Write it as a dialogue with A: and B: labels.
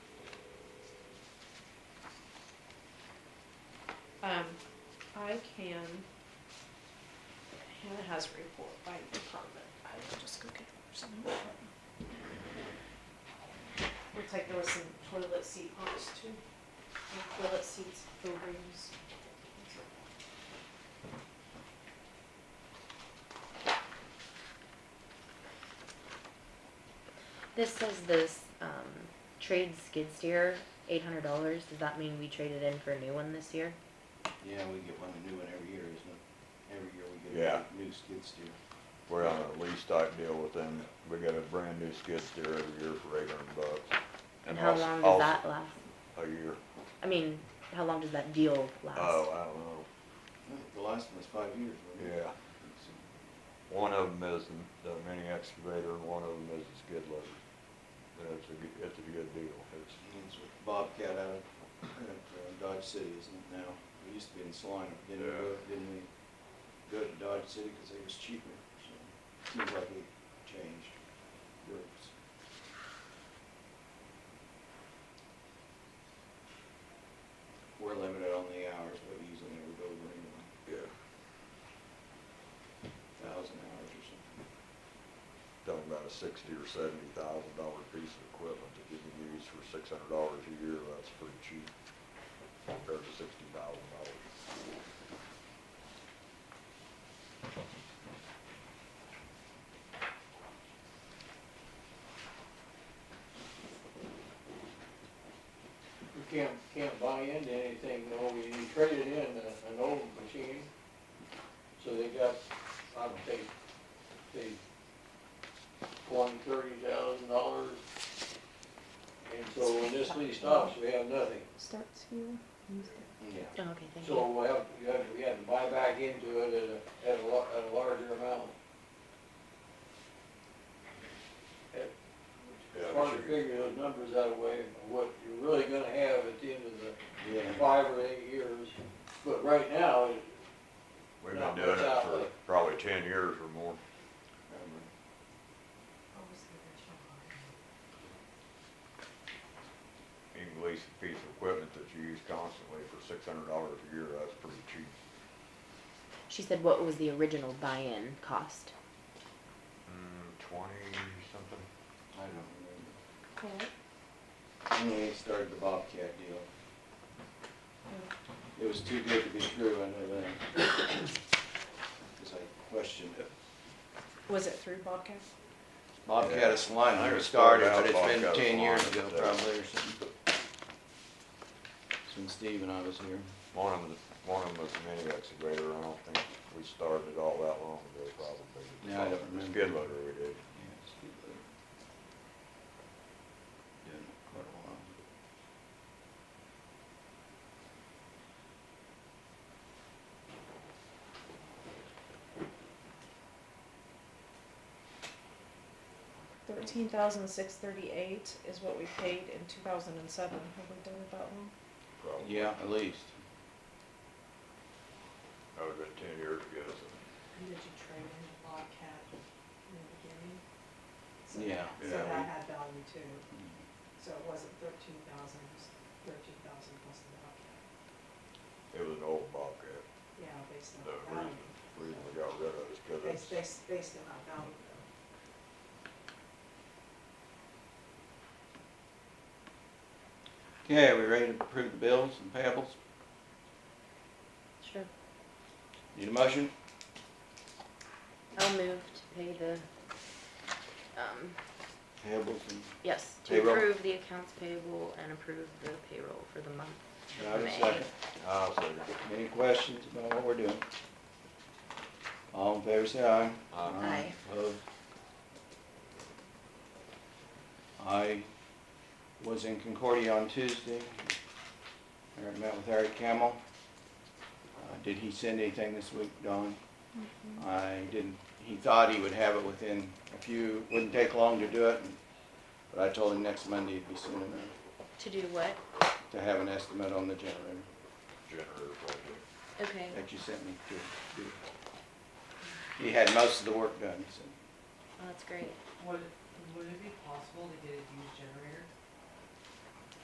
A: Um, I can, Hannah has a report by department, I will just go get some. Looks like there was some toilet seat bumps too, and toilet seats for rooms.
B: This is this um, trade skid steer, eight hundred dollars. Does that mean we traded in for a new one this year?
C: Yeah, we get one, a new one every year, isn't it? Every year we
D: Yeah.
C: get a new skid steer.
D: We're on a lease type deal with them. We got a brand new skid steer every year for eight hundred bucks.
B: And how
D: also-
B: long does
D: also
B: that last?
D: A year.
B: I mean, how long does that deal last?
D: Oh, I don't know.
C: The last one was five years, wasn't it?
D: Yeah. One of them is the- the mini excavator and one of them is the skid loader. And it's a, g- it's a good deal. It's,
C: It's with Bobcat out of out of, uh, Dodge City, isn't it now? We used to be in Salina, didn't we, go- didn't we go to Dodge City because it was cheaper? so Seems like we changed groups. We're limited on the hours, but we usually never go over anyone,
D: yeah,
C: thousand hours or something.
D: talking about a sixty or seventy thousand dollar piece of equipment that you can use for six hundred dollars a year. That's pretty cheap compared to sixty thousand dollars.
E: You can't, can't buy into anything, no, you traded in a- an old machine, so they got, I would say, they won thirty thousand dollars. And so when this lease stops, we have nothing,
F: starts here.
C: Yeah.
B: Oh, okay, thank
E: so we have, you have, we have to buy back into it at a, at a, lar- at a larger amount. It-
D: Yeah,
E: It's hard to
D: sure.
E: figure those numbers out of way, what you're really gonna have at the end of the
C: Yeah.
E: five or eight years, but right now, it-
D: We've
E: Not
D: been doing
E: much
D: it
E: out
D: for
E: there.
D: probably ten years or more.
C: Um,
D: You can lease a piece of equipment that you use constantly for six hundred dollars a year, that's pretty cheap.
B: you. She said, "What was the original buy-in cost?"
D: Mm, twenty something?
C: I don't remember.
A: Correct.
C: when we started the Bobcat deal. It was too good to be true, I know that. Because I questioned it.
A: Was it through Bobcat?
C: Bobcat of
D: I
C: Salina
D: heard
C: started,
D: about
C: but it's been
D: Bobcat of
C: ten years ago
D: Salina, but, uh,
C: probably or something. Since Steve and I was here.
D: One of them, one of them was a mini excavator, I don't think we started it all that long ago probably.
C: Yeah, I don't
D: The
C: remember.
D: Skid loader we did.
C: Yeah, Steve was there. Doing it quite a while.
A: Thirteen thousand six thirty-eight is what we paid in two thousand and seven, have we done that one?
D: probably.
C: Yeah, at least.
D: That was about ten years ago, so.
G: And did you trade in the Bobcat in the beginning? So-
C: Yeah.
G: So
D: Yeah,
G: that
D: we- Mm-hmm.
G: had value too, so it wasn't thirteen thousand, it was thirteen thousand plus the Bobcat,
D: It was an old Bobcat,
G: yeah, based on
D: the reason,
G: value.
D: reason we got rid of it is because it's,
G: Based, based, based on that value though.
C: Okay, are we ready to approve the bills and payables?
B: Sure.
C: Need a motion?
B: I'll move to pay the. Um,
C: Payables and.
B: yes, to
C: Payroll.
B: approve the accounts payable and approve the payroll for the month.
C: Can I have a
B: May.
C: second?
D: I'll second it.
C: Any questions about what we're doing? All in favor, say aye.
D: Aye.
B: Aye.
C: Opposed? I was in Concordia on Tuesday. I met with Eric Camel. Uh, Did he send anything this week, Don? I didn't, he thought he would have it within a few, wouldn't take long to do it. But I told him next Monday it'd be soon enough
B: To do what?
C: to have an estimate on the generator
D: generator project.
B: Okay.
C: that you sent me to do. He had most of the work done, he said.
B: Well, that's great.
G: Would, would it be possible to get a used generator?